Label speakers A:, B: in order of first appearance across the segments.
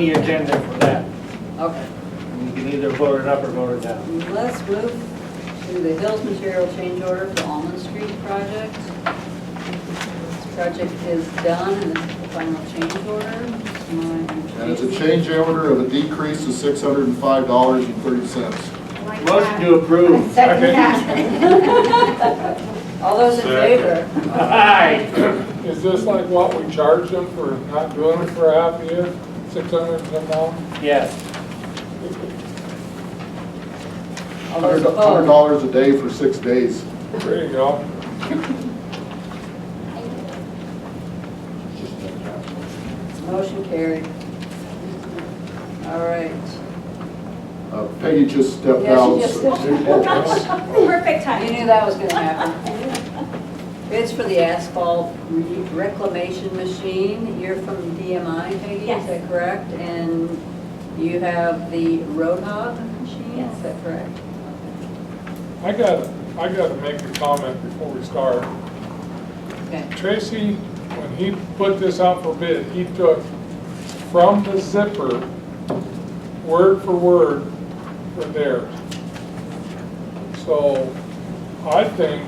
A: the agenda for that.
B: Okay,
A: You can either vote it up or vote it down.
B: let's move to the Hills Material Change Order for Almond Street Project. This project is done and this is the final change order.
C: And it's a change order of a decrease of six hundred and five dollars and thirty cents.
D: Like
A: Motion
D: that.
A: to approve.
D: Second that.
B: All those in favor?
A: Aye.
E: Is this like what we charge them for not doing it for a half a year, six hundred and some dollars?
A: Yes.
B: All those
C: Hundred
B: opposed?
C: dollars a day for six days.
E: There you go.
B: Motion carried. All right.
C: Uh, Peggy just stepped
B: Yeah,
C: out.
B: she just
C: so-
D: Perfect
B: You
D: timing.
B: knew that was gonna happen. Bids for the asphalt re- reclamation machine, you're from DMI, Peggy, is
D: Yes.
B: that correct? And you have the road hog machine, is
D: Yes.
B: that correct?
E: I gotta, I gotta make a comment before we start.
B: Okay,
E: Tracy, when he put this out for bid, he took from the zipper, word for word, for theirs. So I think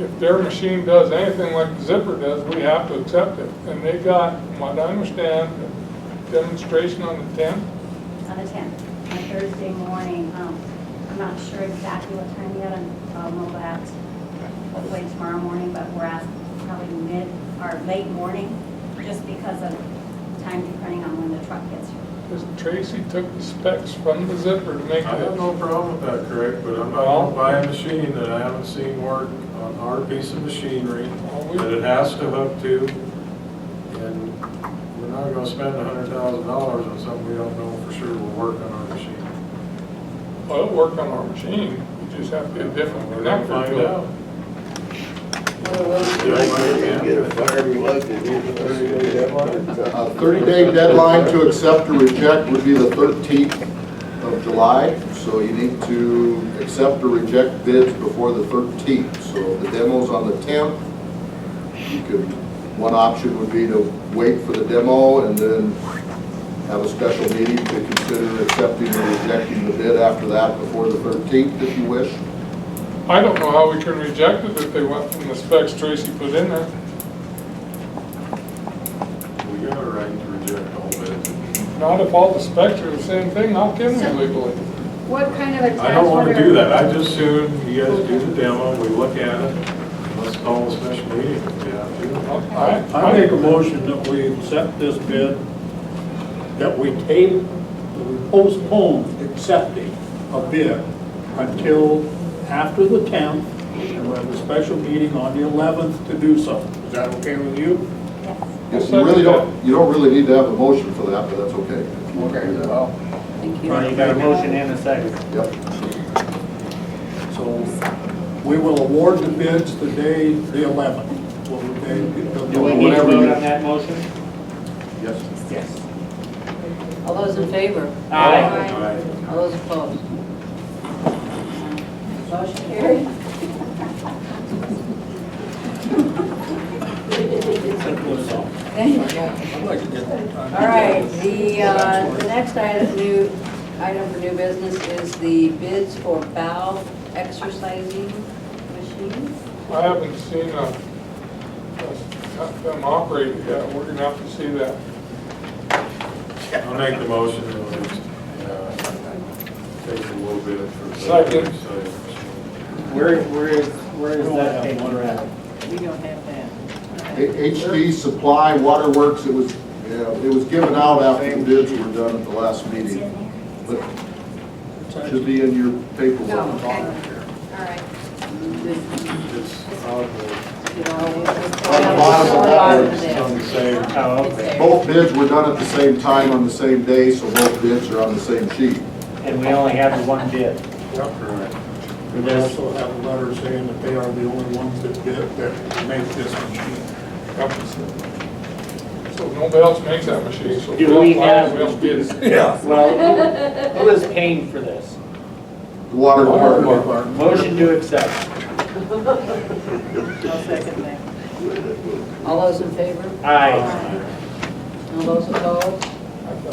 E: if their machine does anything like the zipper does, we have to accept it. And they got, from what I understand, a demonstration on the tenth.
D: On the 10th, on Thursday morning. Um, I'm not sure exactly what time yet, and I'll know that hopefully tomorrow morning, but we're at probably mid or late morning, just because of time depending on when the truck gets here.
E: Tracy took the specs from the zipper to make
F: I have
E: it.
F: no problem with that, Craig, but I'm not gonna buy a machine that I haven't seen work on our piece of machinery that it has to hook to, and we're not gonna spend a hundred thousand dollars on something we don't know for sure will work on our machine.
E: Well, it'll work on our machine, we just have to get a different
F: We're gonna
E: connector.
F: find
E: to it.
F: out.
B: Well, we'll-
F: Yeah, I
G: Get
F: can.
G: a fire plug and do the thirty-day deadline?
C: A thirty-day deadline to accept or reject would be the thirteenth of July, so you need to accept or reject bids before the thirteenth. So the demo's on the tenth. You could, one option would be to wait for the demo and then have a special meeting to consider accepting or rejecting the bid after that before the thirteenth, if you wish.
E: I don't know how we can reject it if they went from the specs Tracy put in there.
F: We got a right to reject all bids.
E: Not if all the specs are the same thing, how can we legally?
D: What kind of a
F: I don't wanna do that, I just soon, you guys do the demo, we look at it, let's call a special meeting if we have to.
E: I-
H: I make a motion that we accept this bid, that we table, that we postpone accepting a bid until after the 10th, and we'll have a special meeting on the 11th to do so. Is that okay with you?
C: You really don't, you don't really need to have a motion for that, but that's okay. Okay,
B: Thank you.
A: Well, you got a motion and a second.
C: Yep.
H: So we will award the bids the day, the 11th. Will the day-
A: Do we need to vote on that motion?
C: Yes.
A: Yes.
B: All those in favor?
A: Aye.
B: All those opposed? Motion carried. Thank you.
H: I'd like to get that done.
B: All right, the, uh, the next item, new, item for new business is the bids for bow exercising machines.
E: I haven't seen a, a- a- them operate yet, we're gonna have to see that.
F: I'll make the motion and we'll just, uh, take a little bit for. the-
E: Second.
A: Where, where is, where is
H: We only
A: that
H: have
A: paper
H: one
A: at?
B: We don't have that.
C: HD Supply Waterworks, it was, yeah, it was given out after the bids were done at the last meeting, but it should be in your
B: No,
C: paperwork.
B: okay,
D: All right.
F: It's on the-
C: bottom of that
F: it's on the same.
A: Oh, okay.
C: Both bids were done at the same time on the same day, so both bids are on the same sheet.
A: And we only have the one bid.
F: Correct.
H: And they also have a letter saying that they are the only ones that did, that make this machine.
E: Have to see. So nobody else makes that machine, so.
A: Do we
E: why
A: have-
E: we else bids?
H: Yeah.
A: Well, who is paying for this?
C: The Water Department,
A: Motion to accept.
B: All those in favor?
A: Aye.
B: All those opposed?